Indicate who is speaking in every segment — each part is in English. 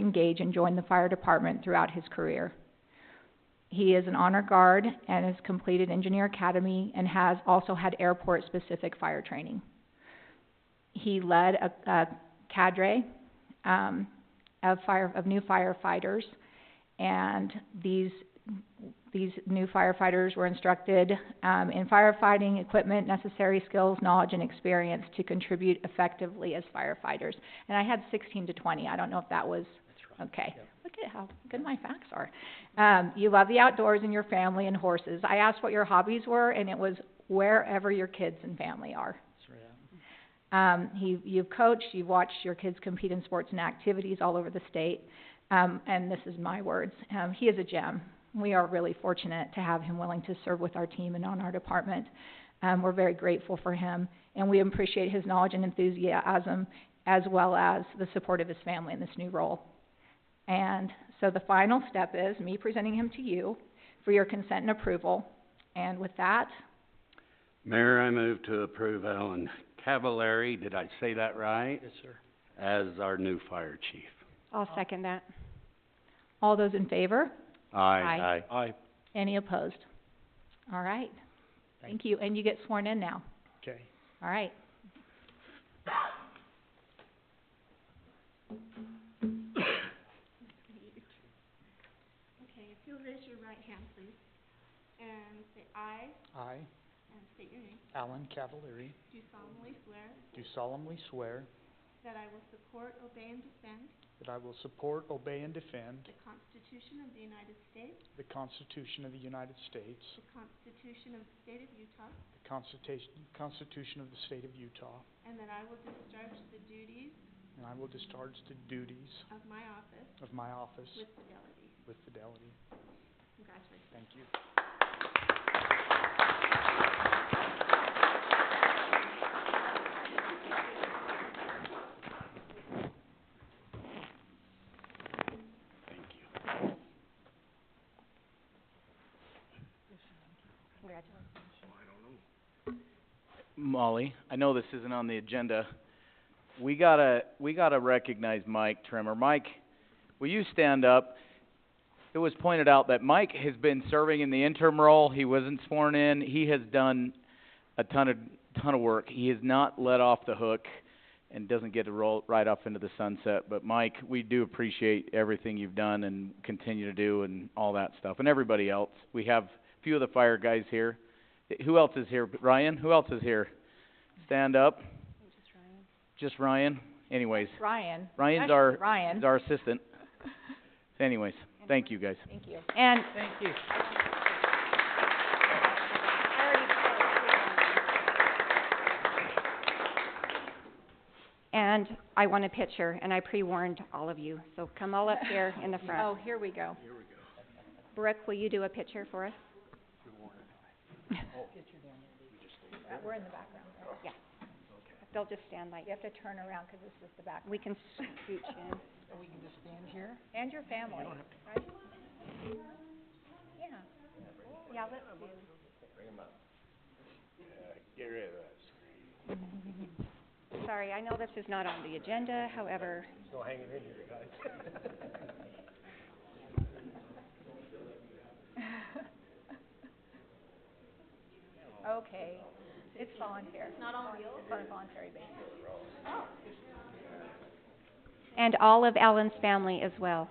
Speaker 1: engage and join the fire department throughout his career. He is an honor guard and has completed engineer academy and has also had airport-specific fire training. He led a, a cadre, um, of fire, of new firefighters, and these, these new firefighters were instructed, um, in firefighting equipment, necessary skills, knowledge, and experience to contribute effectively as firefighters. And I had sixteen to twenty, I don't know if that was Okay,
Speaker 2: Yep.
Speaker 1: look at how good my facts are. Um, you love the outdoors and your family and horses. I asked what your hobbies were, and it was wherever your kids and family are.
Speaker 2: Straight up.
Speaker 1: Um, he, you've coached, you've watched your kids compete in sports and activities all over the state. Um, and this is my words, um, he is a gem. We are really fortunate to have him willing to serve with our team and on our department. Um, we're very grateful for him, and we appreciate his knowledge and enthusiasm as well as the support of his family in this new role. And so the final step is me presenting him to you for your consent and approval. And with that,
Speaker 3: Mayor, I move to approve Alan Cavallari, did I say that right?
Speaker 2: Yes, sir.
Speaker 3: As our new fire chief.
Speaker 4: I'll second that.
Speaker 1: all those in favor?
Speaker 3: Aye. Aye.
Speaker 2: Aye.
Speaker 1: Any opposed? All right. Thank you, and you get sworn in now.
Speaker 2: Okay.
Speaker 1: All right.
Speaker 5: Okay, if you'll raise your right hand, please, and say I,
Speaker 2: I,
Speaker 5: and state your name,
Speaker 2: Alan Cavallari,
Speaker 5: do solemnly swear
Speaker 2: do solemnly swear
Speaker 5: that I will support, obey, and defend
Speaker 2: that I will support, obey, and defend
Speaker 5: the Constitution of the United States,
Speaker 2: the Constitution of the United States,
Speaker 5: the Constitution of the State of Utah,
Speaker 2: the Constitution, Constitution of the State of Utah,
Speaker 5: and that I will discharge the duties
Speaker 2: and I will discharge the duties
Speaker 5: of my office
Speaker 2: of my office
Speaker 5: with fidelity.
Speaker 2: with fidelity.
Speaker 5: Congratulations.
Speaker 2: Thank you.
Speaker 3: Thank you.
Speaker 6: Molly, I know this isn't on the agenda. We gotta, we gotta recognize Mike Trimmer. Mike, will you stand up? It was pointed out that Mike has been serving in the interim role. He wasn't sworn in. He has done a ton of, ton of work. He is not let off the hook and doesn't get to roll right off into the sunset. But Mike, we do appreciate everything you've done and continue to do and all that stuff, and everybody else. We have a few of the fire guys here. Who else is here? Ryan, who else is here? Stand up. Just Ryan. Anyways,
Speaker 1: Ryan.
Speaker 6: Ryan's
Speaker 1: Actually,
Speaker 6: our-
Speaker 1: Ryan,
Speaker 6: he's our assistant. Anyways, thank you guys.
Speaker 1: thank you. And
Speaker 2: Thank you.
Speaker 4: And I want a picture, and I pre-warned all of you, so come all up here in the front.
Speaker 1: Oh, here we go.
Speaker 4: Brooke, will you do a picture for us?
Speaker 1: We're in the background. right?
Speaker 4: They'll just stand like,
Speaker 1: You have to turn around because this is the background.
Speaker 4: we can scooch in.
Speaker 1: And your family, right? Yeah. Yeah, let's do.
Speaker 4: Sorry, I know this is not on the agenda, however,
Speaker 1: Okay, it's voluntary. Not on wheels? On a voluntary basis.
Speaker 4: and all of Alan's family as well.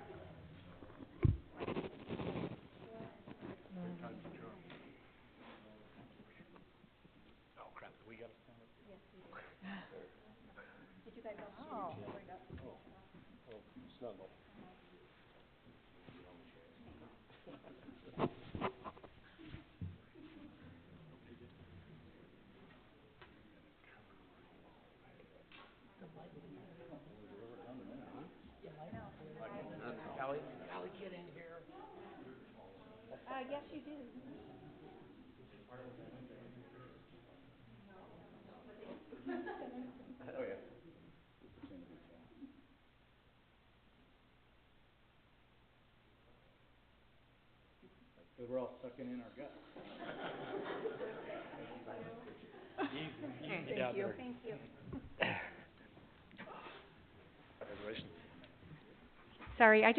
Speaker 1: Thank you.
Speaker 3: Congratulations.
Speaker 4: Sorry, I